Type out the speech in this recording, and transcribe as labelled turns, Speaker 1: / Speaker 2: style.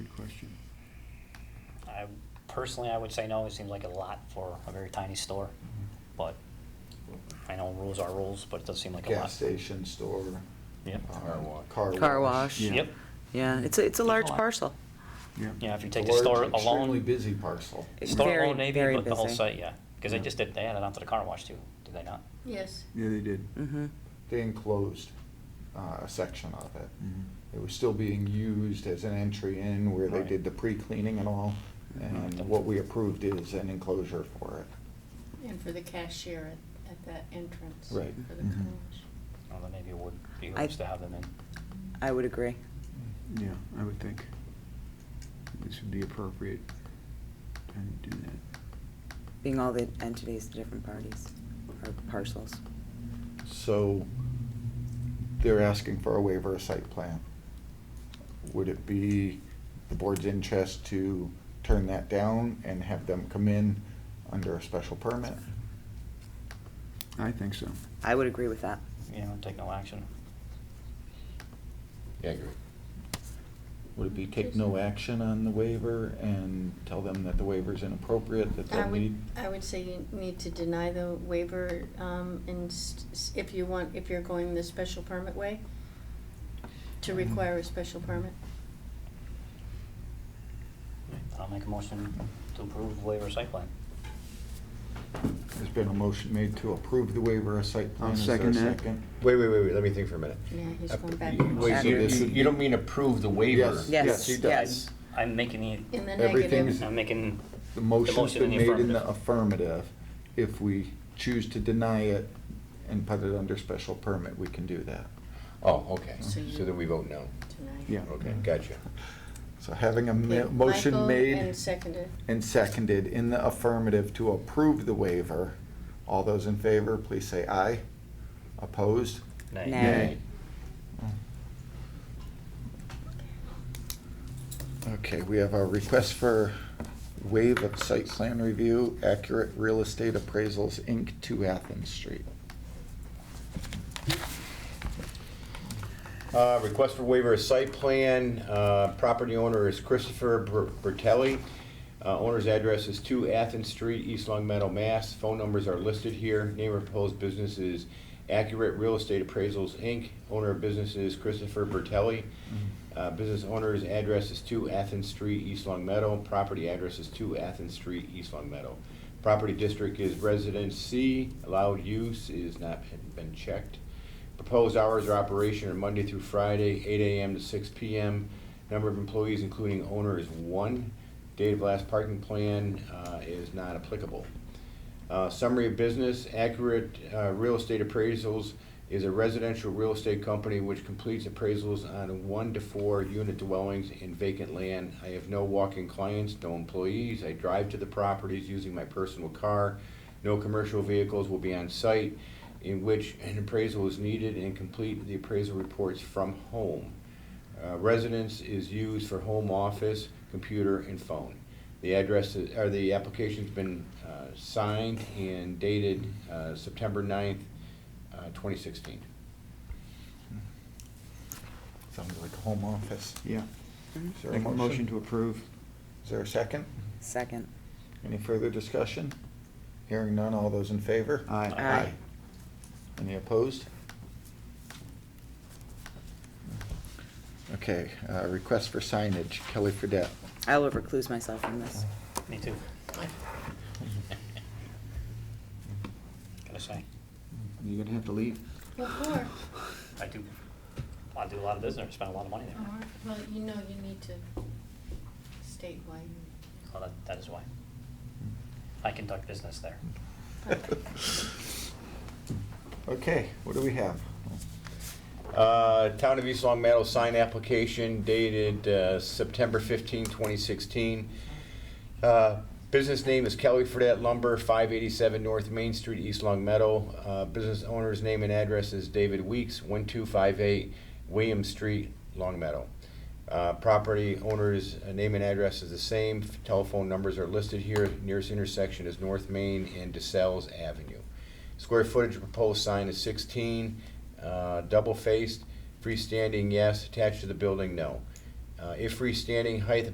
Speaker 1: personally, I would say no, it seems like a lot for a very tiny store, but I know rules are rules, but it does seem like a lot.
Speaker 2: Gas station, store.
Speaker 1: Yeah.
Speaker 2: um,
Speaker 3: Car wash.
Speaker 2: Car wash.
Speaker 4: Car wash.
Speaker 5: Yeah.
Speaker 1: Yep,
Speaker 4: Yeah, it's a, it's a large
Speaker 1: lot.
Speaker 4: parcel.
Speaker 1: yeah, if you
Speaker 2: It's
Speaker 1: take
Speaker 2: a
Speaker 1: the store
Speaker 2: large, Extremely
Speaker 1: alone,
Speaker 2: busy parcel.
Speaker 1: store
Speaker 4: Very,
Speaker 1: alone maybe,
Speaker 4: very
Speaker 1: but the whole
Speaker 4: busy.
Speaker 1: site, yeah, because they
Speaker 5: Yeah.
Speaker 1: just did, they added on to the car wash too, did they not?
Speaker 6: Yes.
Speaker 5: Yeah, they did.
Speaker 4: Mm-hmm.
Speaker 2: They enclosed uh, a section of it.
Speaker 5: Mhm.
Speaker 2: It was still being used as an entry in where they
Speaker 1: Mm-hmm. Right.
Speaker 2: did the pre-cleaning and all. And
Speaker 1: Mhm.
Speaker 2: what we approved is an enclosure for it.
Speaker 6: And for the cashier at, at that entrance.
Speaker 2: Right.
Speaker 6: For the
Speaker 5: Mhm.
Speaker 6: college.
Speaker 1: Well, then maybe it would be
Speaker 4: I-
Speaker 1: nice to have them in.
Speaker 4: I would agree.
Speaker 5: Yeah, I would think this would be appropriate and do that.
Speaker 4: Being all the entities, the different parties or parcels.
Speaker 2: So they're asking for a waiver of site plan. Would it be the board's interest to turn that down and have them come in under a special permit?
Speaker 5: I think so.
Speaker 4: I would agree with that.
Speaker 1: you know, take no action.
Speaker 3: Yeah, I agree.
Speaker 2: Would it be take no action on the waiver and tell them that the waiver's inappropriate, that
Speaker 6: I
Speaker 2: they'll
Speaker 6: would, uh,
Speaker 2: need?
Speaker 6: I would say you need to deny the waiver, um, and s- s- if you want, if you're going the special permit way,
Speaker 2: Mm-hmm.
Speaker 6: to require a special permit.
Speaker 1: I'll make a motion to approve waiver of site plan.
Speaker 2: There's been a motion made to approve the waiver of site plan.
Speaker 5: I'll
Speaker 2: Is there
Speaker 5: second
Speaker 2: a
Speaker 5: that.
Speaker 3: Wait, wait, wait, wait, let me think for a minute.
Speaker 6: Yeah, he's
Speaker 3: Uh,
Speaker 6: going back.
Speaker 3: Wait, you, you- you don't mean approve the waiver?
Speaker 2: Yes.
Speaker 4: Yes,
Speaker 2: Yes, he does.
Speaker 4: yes.
Speaker 1: I'm making
Speaker 6: In the
Speaker 2: Everything's-
Speaker 6: negative.
Speaker 1: the, I'm making.
Speaker 2: The motion's
Speaker 1: motion in
Speaker 2: been
Speaker 1: the
Speaker 2: made in the affirmative. If we choose to deny it and put it under special permit, we can do that.
Speaker 3: Oh, okay,
Speaker 6: So
Speaker 3: so
Speaker 6: you-
Speaker 3: then we vote no.
Speaker 6: Deny.
Speaker 5: Yeah.
Speaker 3: Okay, gotcha.
Speaker 2: So having a ma-
Speaker 6: Okay,
Speaker 2: motion
Speaker 6: Michael
Speaker 2: made.
Speaker 6: and seconded.
Speaker 2: and seconded in the affirmative to approve the waiver. All those in favor, please say aye. Opposed?
Speaker 1: Nay.
Speaker 4: Nay.
Speaker 2: Okay, we have a request for waive of site plan review, Accurate Real Estate Appraisals, Inc., to Athens Street.
Speaker 3: Uh, Request for waiver of site plan. Uh, Property owner is Christopher Br- Bertelli. Uh, Owner's address is 2 Athens Street, East Long Meadow, Mass. Phone numbers are listed here. Name of proposed business is Accurate Real Estate Appraisals, Inc. Owner of business is Christopher Bertelli. Uh, Business owner's address is 2 Athens Street, East Long Meadow. Property address is 2 Athens Street, East Long Meadow. Property district is Residence C. Allowed use is not been checked. Proposed hours of operation are Monday through Friday, eight AM to six PM. Number of employees, including owner, is one. Date of last parking plan uh, is not applicable. Uh, Summary of business, Accurate uh, Real Estate Appraisals is a residential real estate company which completes appraisals on one to four unit dwellings in vacant land. I have no walk-in clients, no employees. I drive to the properties using my personal car. No commercial vehicles will be on site in which an appraisal is needed and complete the appraisal reports from home. Uh, Residence is used for home office, computer, and phone. The address, is- or the application's been uh, signed and dated uh, September 9th, uh, 2016.
Speaker 2: Sounds like a home office.
Speaker 5: Yeah.
Speaker 4: Mhm.
Speaker 2: Is there a
Speaker 5: Make a motion to approve. Mm-hmm.
Speaker 2: Is there a second?
Speaker 4: Second.
Speaker 2: Any further discussion? Hearing none, all those in favor?
Speaker 5: Aye.
Speaker 4: Aye.
Speaker 2: Any opposed? Okay, uh, request for signage, Kelly Fredette.
Speaker 4: I will recluse myself from this.
Speaker 1: Me too. Gotta say,
Speaker 5: You're gonna have to leave.
Speaker 6: What for?
Speaker 1: I do, I do a lot of business, spend a lot of money there.
Speaker 6: Or- Well, you know, you need to state why you.
Speaker 1: Well, that, that is why. I conduct business there.
Speaker 2: Okay, what do we have?
Speaker 3: Uh, Town of East Long Meadow sign application dated uh, September 15, 2016. Uh, Business name is Kelly Fredette Lumber, 587 North Main Street, East Long Meadow. Uh, Business owner's name and address is David Weeks, 1258 William Street, Long Meadow. Uh, Property owner's uh, name and address is the same. Telephone numbers are listed here. Nearest intersection is North Main and DeSales Avenue. Square footage of proposed sign is 16, uh, double-faced, freestanding, yes, attached to the building, no. Uh, If freestanding, height of